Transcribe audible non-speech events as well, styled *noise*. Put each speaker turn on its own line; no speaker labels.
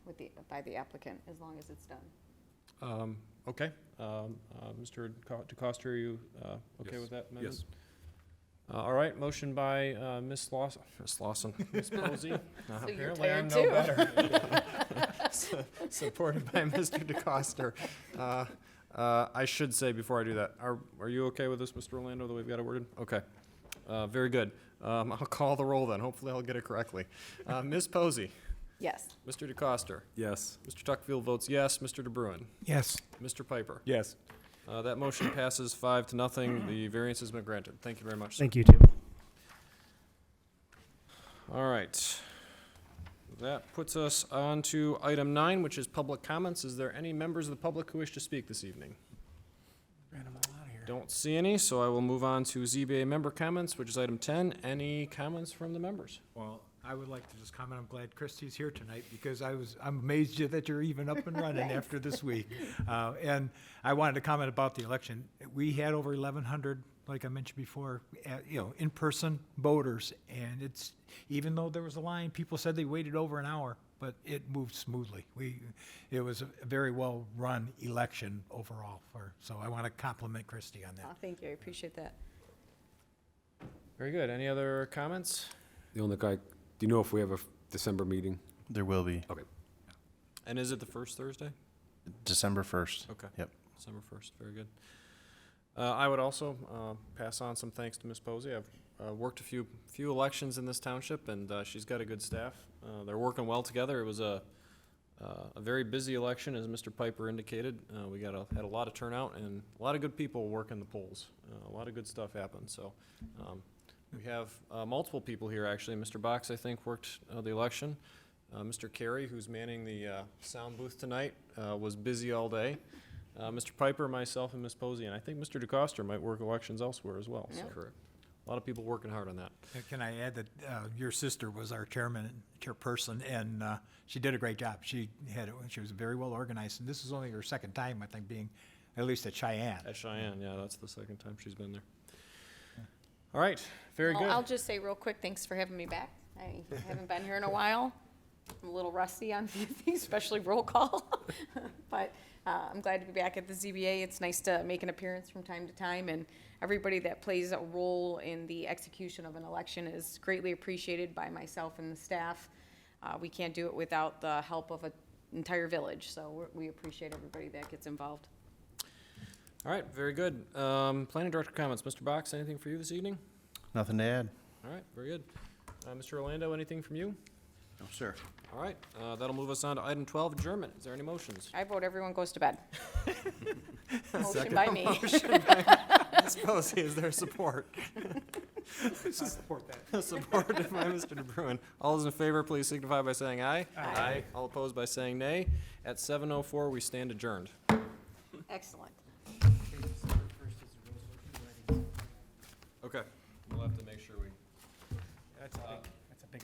with the, by the applicant, as long as it's done.
Um, Okay. Um, uh, Mr. Co- DeCosta, are you uh, okay
Yes.
with that amendment?
Yes,
Uh, All right, motion by uh, Ms. Lawson, Ms. Lawson, *laughs* Ms. Posey. Uh,
you're
Apparently I'm
tired
no
too.
better. *laughs* S- Supported by Mr. DeCosta. Uh, uh, I should say before I do that, are, are you okay with this, Mr. Orlando, the way we've got it worded? Okay. Uh, Very good. Um, I'll call the roll then. Hopefully I'll get it correctly. Uh, Ms. Posey,
Yes,
Mr. DeCosta,
yes.
Mr. Tuckfield votes yes, Mr. DeBruin,
Yes.
Mr. Piper.
Yes.
Uh, That motion passes five to nothing. The variance has been granted. Thank you very much, sir.
Thank you, Tim.
All right. That puts us on to item nine, which is public comments. Is there any members of the public who wish to speak this evening? Don't see any, so I will move on to ZBA member comments, which is item 10. Any comments from the members?
Well, I would like to just comment, I'm glad Christie's here tonight because I was, I'm amazed you- that you're even up and running after this week. Uh, And I wanted to comment about the election. We had over 1,100, like I mentioned before, uh, you know, in-person voters. And it's, even though there was a line, people said they waited over an hour, but it moved smoothly. We, it was a very well-run election overall for, so I want to compliment Christie on
Aw,
that.
Oh, thank you, I appreciate that.
Very good. Any other comments?
The only guy, do you know if we have a f- December meeting?
There will be.
And is it the first Thursday?
December 1st.
Okay.
Yep.
December 1st, very good. Uh, I would also uh, pass on some thanks to Ms. Posey. I've uh, worked a few, few elections in this township, and uh, she's got a good staff. Uh, They're working well together. It was a, uh, a very busy election, as Mr. Piper indicated. Uh, We got, a had a lot of turnout and a lot of good people working the polls. Uh, A lot of good stuff happened, so. um, We have uh, multiple people here, actually. Mr. Box, I think, worked uh, the election. Uh, Mr. Carey, who's manning the uh, sound booth tonight, uh, was busy all day. Uh, Mr. Piper, myself, and Ms. Posey, and I think Mr. DeCosta might work elections elsewhere as well. So
Yeah.
Correct. A lot of people working hard on that.
And Can I add that uh, your sister was our chairman, chairperson, and uh, she did a great job. She had, it. she was very well organized, and this is only her second time, I think, being at least at Cheyenne.
At Cheyenne, yeah, that's the second time she's been there. All right, very
Well, I'll
good.
just say real quick, thanks for having me back. I haven't been here in a while. I'm a little rusty on *laughs* a few things, especially roll call. *laughs* But uh, I'm glad to be back at the ZBA. It's nice to make an appearance from time to time, and everybody that plays a role in the execution of an election is greatly appreciated by myself and the staff. Uh, We can't do it without the help of an entire village, so we're- we appreciate everybody that gets involved.
All right, very good. Um, Planning Director comments, Mr. Box, anything for you this evening?
Nothing to add?
All right, very good. Uh, Mr. Orlando, anything from you?
No, sir.
All right, uh, that'll move us on to item twelve, adjournment. Is there any *laughs* motions?
I vote everyone goes to bed. Motion by me.
Ms. Posey, is there support?
*laughs* Support that.
*laughs* Supported by Mr. DeBruin. All those in favor, please signify by saying aye. Aye. All opposed by saying nay. At seven oh four, we stand adjourned.
Excellent.